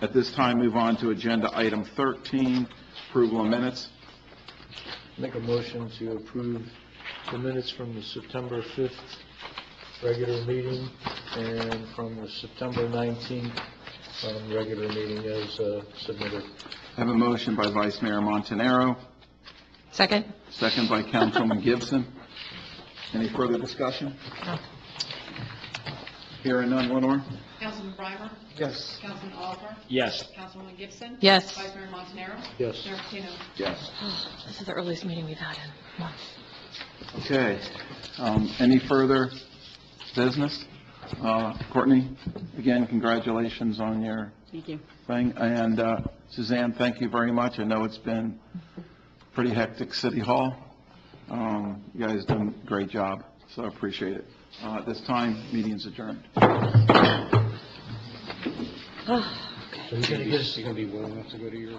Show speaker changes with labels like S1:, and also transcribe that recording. S1: At this time, move on to agenda item 13, approval of minutes.
S2: Make a motion to approve the minutes from the September 5th regular meeting and from the September 19th um, regular meeting as uh, submitted.
S1: I have a motion by Vice Mayor Montanaro,
S3: Second?
S1: second by Councilman Gibson. Any further discussion? Hearing none, Lenore?
S4: Councilman Breimer?
S2: Yes.
S4: Councilman Oliver?
S5: Yes.
S4: Councilwoman Gibson?
S3: Yes.
S4: Vice Mayor Montanaro?
S2: Yes.
S4: Mayor Patino?
S1: Yes.
S3: This is the earliest meeting we've had in months.
S1: Okay. Um, Any further business? Uh, Courtney, again, congratulations on your
S6: Thank you.
S1: thing. And uh, Suzanne, thank you very much. I know it's been pretty hectic City Hall. Um, You guys done a great job, so I appreciate it. Uh, At this time, meeting's adjourned.
S2: So you're going to get us
S5: gonna be warm enough to go to your